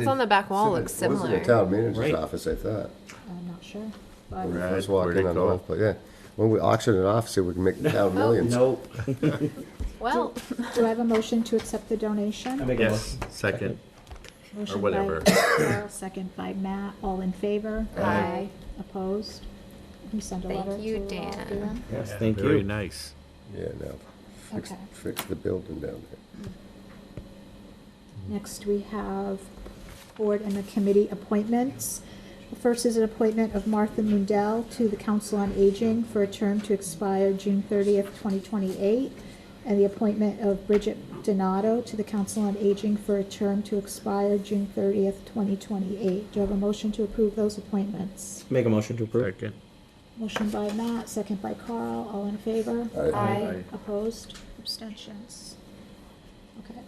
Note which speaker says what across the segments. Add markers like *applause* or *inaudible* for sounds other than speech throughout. Speaker 1: It's on the back wall looks
Speaker 2: It was in
Speaker 1: similar.
Speaker 2: the town manager's
Speaker 3: Right.
Speaker 2: office, I thought.
Speaker 4: I'm not sure.
Speaker 2: When we
Speaker 3: Right,
Speaker 2: first
Speaker 3: where
Speaker 2: walked
Speaker 3: they
Speaker 2: in on the
Speaker 3: call it.
Speaker 2: Wolf, but yeah. When we auctioned an office, we can make the town millions.
Speaker 3: *laughs* No.
Speaker 1: Well,
Speaker 4: Do I have a motion to accept the donation?
Speaker 3: Yes, second.
Speaker 4: Motion by
Speaker 3: whatever.
Speaker 4: Carol, Second by Matt, all in favor?
Speaker 1: Aye.
Speaker 4: Opposed? Can you send a
Speaker 1: Thank
Speaker 4: letter
Speaker 1: you,
Speaker 4: to, uh,
Speaker 1: Dan.
Speaker 3: Yes, thank
Speaker 5: Very
Speaker 3: you.
Speaker 5: nice.
Speaker 2: Yeah, no. Fix,
Speaker 4: Okay.
Speaker 2: fix the building down
Speaker 3: Oh,
Speaker 2: there.
Speaker 4: Next, we have board and the committee appointments. The first is an appointment of Martha Mundell to the Council on Aging for a term to expire June thirtieth, twenty twenty-eight, and the appointment of Bridget Donato to the Council on Aging for a term to expire June thirtieth, twenty twenty-eight. Do you have a motion to approve those appointments?
Speaker 3: Make a motion to approve.
Speaker 5: Second.
Speaker 4: Motion by Matt, second by Carl, all in favor?
Speaker 2: Aye. Aye.
Speaker 3: Aye.
Speaker 4: Opposed? Abstentions? Okay.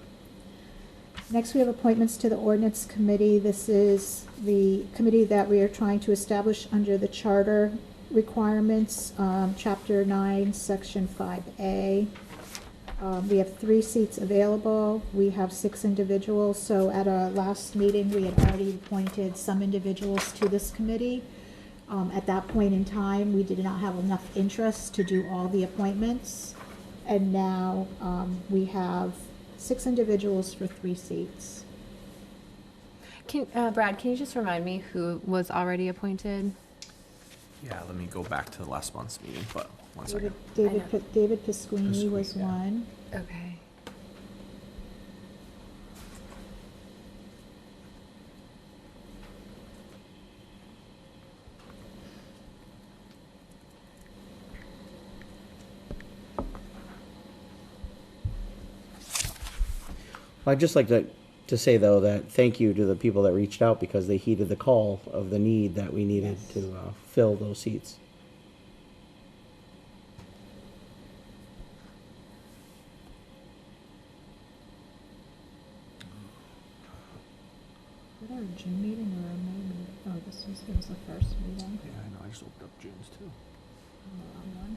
Speaker 4: Next, we have appointments to the ordinance committee. This is the committee that we are trying to establish under the charter requirements, um, chapter nine, section five A. Um, we have three seats available. We have six individuals, so at our last meeting, we had already appointed some individuals to this committee. Um, at that point in time, we did not have enough interest to do all the appointments. And now, um, we have six individuals for three seats.
Speaker 1: can, uh, Brad, can you just remind me who was already appointed?
Speaker 6: Yeah, let me go back to the last month's meeting, but
Speaker 4: David,
Speaker 6: one second.
Speaker 4: David,
Speaker 1: I know.
Speaker 4: Pi- David Pasquini was
Speaker 6: Pasquini, yeah.
Speaker 4: one.
Speaker 1: Okay.
Speaker 3: I'd just like to, to say though, that thank you to the people that reached out because they heeded the call of the need that we needed to uh, fill those seats.
Speaker 4: Was that a June meeting or a May meeting? Oh, this was, it was the first meeting.
Speaker 6: Yeah, I know, I just opened up June's too.
Speaker 4: I'm the wrong one.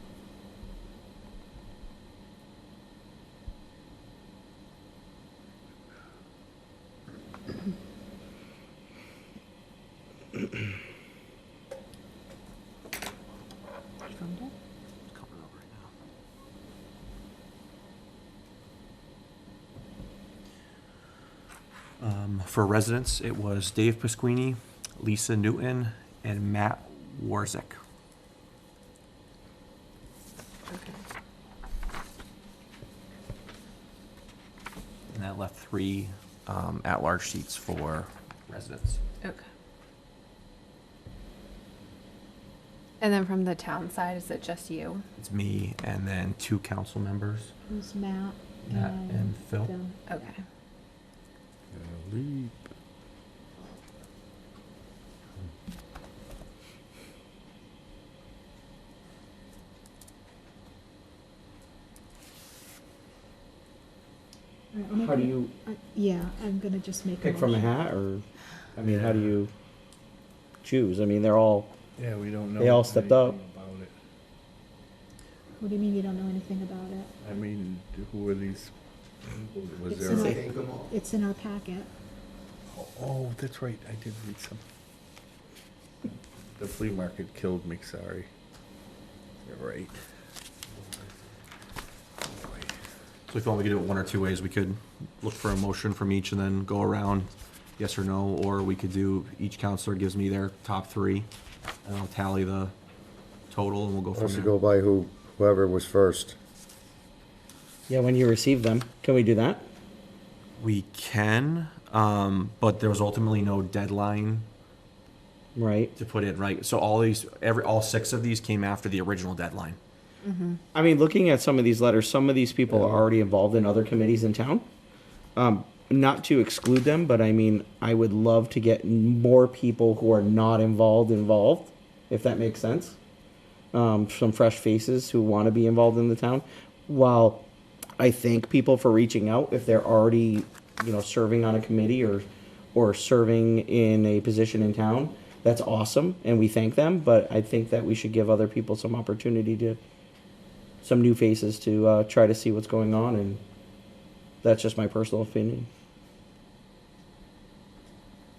Speaker 4: Found it?
Speaker 6: It's coming up right now. Um, for residents, it was Dave Pasquini, Lisa Newton, and Matt Warzik.
Speaker 1: Okay.
Speaker 6: And that left three, um, at-large seats for residents.
Speaker 1: Okay. And then from the town side, is it just you?
Speaker 6: It's me and then two council members,
Speaker 4: It was Matt
Speaker 6: Matt
Speaker 4: and.
Speaker 6: and Phil.
Speaker 4: Phil.
Speaker 1: Okay.
Speaker 4: All right, I'm not
Speaker 3: How do
Speaker 4: gonna-
Speaker 3: you
Speaker 4: I- uh, Yeah, I'm gonna just make a
Speaker 3: pick from a
Speaker 4: motion.
Speaker 3: hat or, I mean, how do you choose? I mean, they're all,
Speaker 5: Yeah, we don't know.
Speaker 3: They all stepped up.
Speaker 5: anything about it.
Speaker 4: What do you mean you don't know anything about it?
Speaker 5: I mean, who are these? Was
Speaker 4: It's
Speaker 5: there?
Speaker 4: not-
Speaker 3: Take
Speaker 4: It's in our packet.
Speaker 5: Oh, that's right, I did read some. The flea market killed me, sorry. You're right.
Speaker 6: So if you want, we could do it one or two ways. We could look for a motion from each and then go around, yes or no, or we could do, each counselor gives me their top three. And I'll tally the total and we'll go
Speaker 2: Why
Speaker 6: from
Speaker 2: don't you
Speaker 6: there.
Speaker 2: go by who, whoever was first?
Speaker 3: Yeah, when you receive them, can we do that?
Speaker 6: We can, um, but there was ultimately no deadline
Speaker 3: Right.
Speaker 6: to put in, right? So all these, every, all six of these came after the original deadline.
Speaker 3: I mean, looking at some of these letters, some of these people are already involved in other committees in town. Um, not to exclude them, but I mean, I would love to get more people who are not involved involved, if that makes sense. Um, some fresh faces who want to be involved in the town. While I thank people for reaching out, if they're already, you know, serving on a committee or or serving in a position in town, that's awesome, and we thank them. But I think that we should give other people some opportunity to some new faces to uh, try to see what's going on, and that's just my personal opinion.